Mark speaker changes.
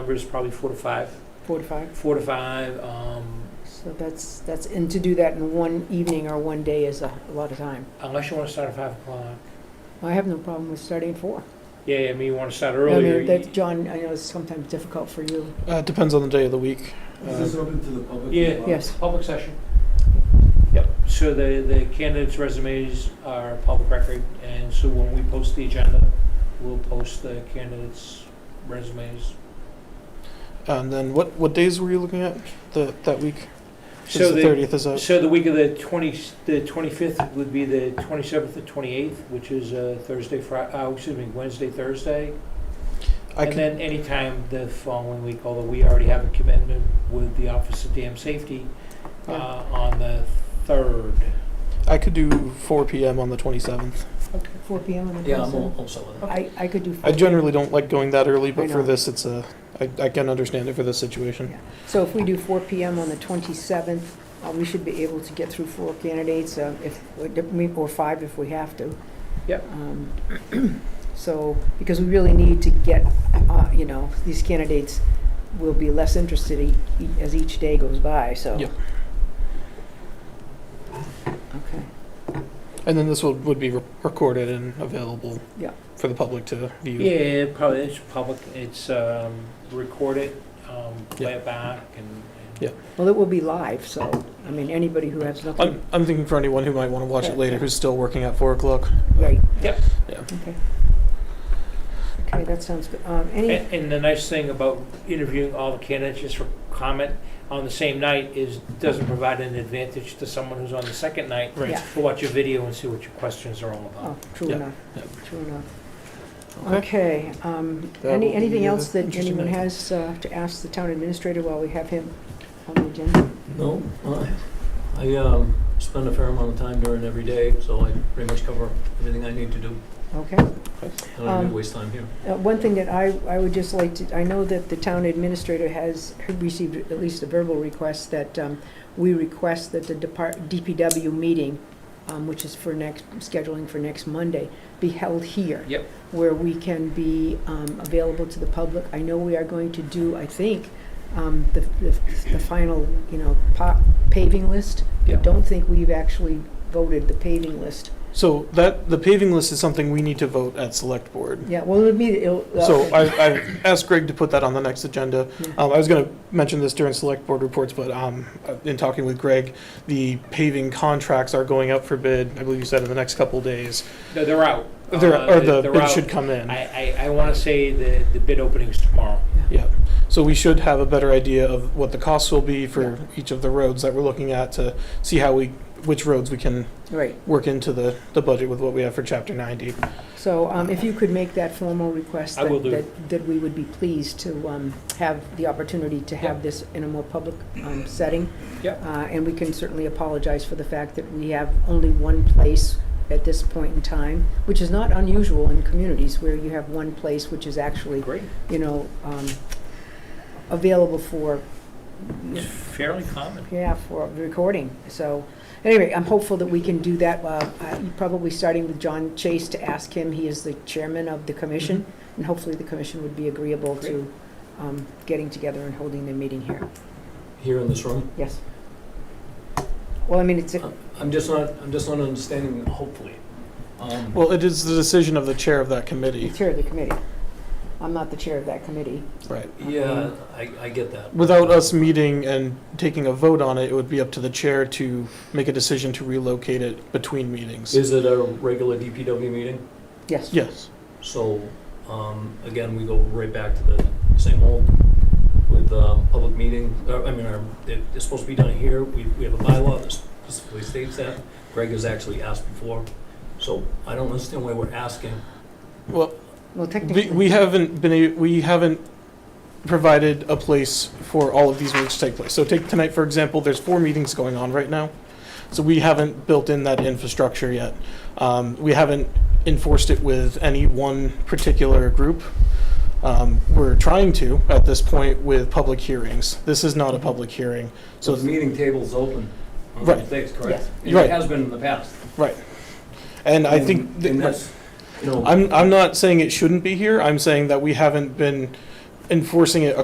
Speaker 1: number is probably four to five,
Speaker 2: four to five?
Speaker 1: four to five, um,
Speaker 2: So that's, that's, and to do that in one evening or one day is a a lot of time.
Speaker 1: unless you want to start at five o'clock.
Speaker 2: I have no problem with starting at four.
Speaker 1: Yeah, I mean, you want to start
Speaker 2: I mean,
Speaker 1: earlier.
Speaker 2: That, John, I know it's sometimes difficult for you.
Speaker 3: Uh, it depends on the day of the week.
Speaker 4: Is this open to the public? as
Speaker 1: Yeah.
Speaker 4: well?
Speaker 2: Yes.
Speaker 1: Public session. Yep, so the, the candidates' resumes are public record, and so when we post the agenda, we'll post the candidates' resumes.
Speaker 3: And then what, what days were you looking at the, that week?
Speaker 1: So
Speaker 3: It's the
Speaker 1: the-
Speaker 3: 30th is out.
Speaker 1: So the week of the twenty, the twenty-fifth would be the twenty-seventh and twenty-eighth, which is uh, Thursday, Fri, uh, excuse me, Wednesday, Thursday.
Speaker 3: I
Speaker 1: And
Speaker 3: could,
Speaker 1: then anytime the following week, although we already have a commitment with the Office of Dam Safety uh,
Speaker 2: Yeah.
Speaker 1: on the third.
Speaker 3: I could do 4 p.m. on the 27th.
Speaker 2: Four PM on the
Speaker 4: Yeah, I'm
Speaker 2: twenty-seventh?
Speaker 4: al- also on that.
Speaker 2: I, I could do.
Speaker 3: I
Speaker 2: 4
Speaker 3: generally don't like going that early,
Speaker 2: I
Speaker 3: but for
Speaker 2: know.
Speaker 3: this, it's a, I, I can understand it for this situation.
Speaker 2: So if we do four PM on the twenty-seventh, uh, we should be able to get through four candidates, uh, if, or five if we have to.
Speaker 1: Yep.
Speaker 2: Um, So, because we really need to get, uh, you know, these candidates will be less interested e- e- as each day goes by, so.
Speaker 3: Yep.
Speaker 2: Okay,
Speaker 3: And then this would, would be re- recorded and available
Speaker 2: Yeah.
Speaker 3: for the public to view.
Speaker 1: Yeah, probably, it's public, it's um, recorded, um, play
Speaker 3: Yeah.
Speaker 1: it back and.
Speaker 3: Yeah.
Speaker 2: well, it will be live, so, I mean, anybody who has nothing,
Speaker 1: Um,
Speaker 3: I'm, I'm thinking for anyone who might want to watch it
Speaker 2: Right,
Speaker 3: later
Speaker 2: yeah.
Speaker 3: who's still working at 4 o'clock.
Speaker 2: right.
Speaker 1: Yep.
Speaker 3: Yeah.
Speaker 2: Okay. Okay, that sounds good. Um, Any,
Speaker 1: And and the nice thing about interviewing all the candidates just for comment on the same night is, doesn't provide an advantage to someone who's on the second night.
Speaker 3: Right.
Speaker 2: Yeah.
Speaker 1: To watch your video and see what your questions are all
Speaker 2: oh,
Speaker 1: about.
Speaker 2: true
Speaker 3: Yeah,
Speaker 2: enough,
Speaker 3: yeah.
Speaker 2: true enough. Okay, um,
Speaker 3: That will
Speaker 2: any,
Speaker 3: be
Speaker 2: anything
Speaker 3: the
Speaker 2: else that
Speaker 3: interesting
Speaker 2: anyone
Speaker 3: item.
Speaker 2: has uh, to ask the town administrator while we have him on the agenda?
Speaker 4: No, I, I um, spend a fair amount of time during every day, so I pretty much cover everything I need to do.
Speaker 2: Okay.
Speaker 4: I don't need
Speaker 2: Um,
Speaker 4: to waste time here.
Speaker 2: Uh, One thing that I, I would just like to, I know that the town administrator has received at least a verbal request that um, we request that the depart, DPW meeting, um, which is for next, scheduling for next Monday, be held here.
Speaker 1: Yep.
Speaker 2: Where we can be um, available to the public. I know we are going to do, I think, um, the, the the final, you know, pa- paving list. I
Speaker 1: Yep.
Speaker 2: don't think we've actually voted the paving list.
Speaker 3: So that the paving list is something we need to vote at select board.
Speaker 2: Yeah, well, it'll be, it'll.
Speaker 3: So I, I asked Greg to put that on the next agenda.
Speaker 2: Yeah.
Speaker 1: Mm-hmm.
Speaker 3: Um, I was going to mention this during select board reports, but um, in talking with Greg, the paving contracts are going up for bid. I believe you said in the next couple days.
Speaker 1: No, they're out.
Speaker 3: There,
Speaker 1: Uh,
Speaker 3: or the
Speaker 1: they're
Speaker 3: bid
Speaker 1: out.
Speaker 3: should come in.
Speaker 1: I, I, I want to say the, the bid opening's tomorrow.
Speaker 3: Yeah. So we should have a better idea of what the costs will be for each of the roads that we're looking at to see how we, which roads we can
Speaker 2: Right.
Speaker 3: work into the, the budget with what we have for chapter 90.
Speaker 2: So um, if you could make that formal request.
Speaker 1: I will
Speaker 2: that-
Speaker 1: do.
Speaker 2: that- That we would be pleased to um, have the opportunity to have
Speaker 1: Yep.
Speaker 2: this in a more public um, setting.
Speaker 1: Yep.
Speaker 2: Uh, And we can certainly apologize for the fact that we have only one place at this point in time, which is not unusual in communities where you have one place which is actually,
Speaker 1: Great.
Speaker 2: you know, um, available for,
Speaker 1: It's fairly common.
Speaker 2: yeah, for recording. So anyway, I'm hopeful that we can do that, uh, uh, probably starting with John Chase to ask him. He is the chairman of the commission, and hopefully the commission would be agreeable to um, getting together and holding the meeting here.
Speaker 4: Here in this room?
Speaker 2: Yes. Well, I mean, it's, a-
Speaker 4: I'm- I'm just not, I'm just not understanding, hopefully. Um,
Speaker 3: Well, it is the decision of the chair of that committee.
Speaker 2: it's chair of the committee. I'm not the chair of that committee.
Speaker 3: Right.
Speaker 4: Yeah, I, I get that.
Speaker 3: Without us meeting and taking a vote on it, it would be up to the chair to make a decision to relocate it between meetings.
Speaker 4: Is it a regular DPW meeting?
Speaker 2: Yes.
Speaker 3: Yes.
Speaker 4: So, um, again, we go right back to the same old with, um, public meeting, uh, I mean, our, it- it's supposed to be done here, we, we have a bylaw that specifically states that. Greg has actually asked before, so I don't understand why we're asking.
Speaker 3: Well,
Speaker 2: Well,
Speaker 3: we,
Speaker 2: technically.
Speaker 3: we haven't been, a- we haven't provided a place for all of these meetings to take place. So take tonight, for example, there's four meetings going on right now. So we haven't built in that infrastructure yet. Um, we haven't enforced it with any one particular group. Um, we're trying to at this point with public hearings. This is not a public hearing. So
Speaker 4: meeting table's open.
Speaker 3: on Right.
Speaker 4: That's
Speaker 2: correct.
Speaker 4: correct.
Speaker 3: Yes. Right.
Speaker 4: It has been in the past.
Speaker 3: And I think,
Speaker 4: And
Speaker 3: that-
Speaker 4: that's, you know.
Speaker 3: I'm, I'm not saying it shouldn't be here, I'm saying that we haven't been enforcing it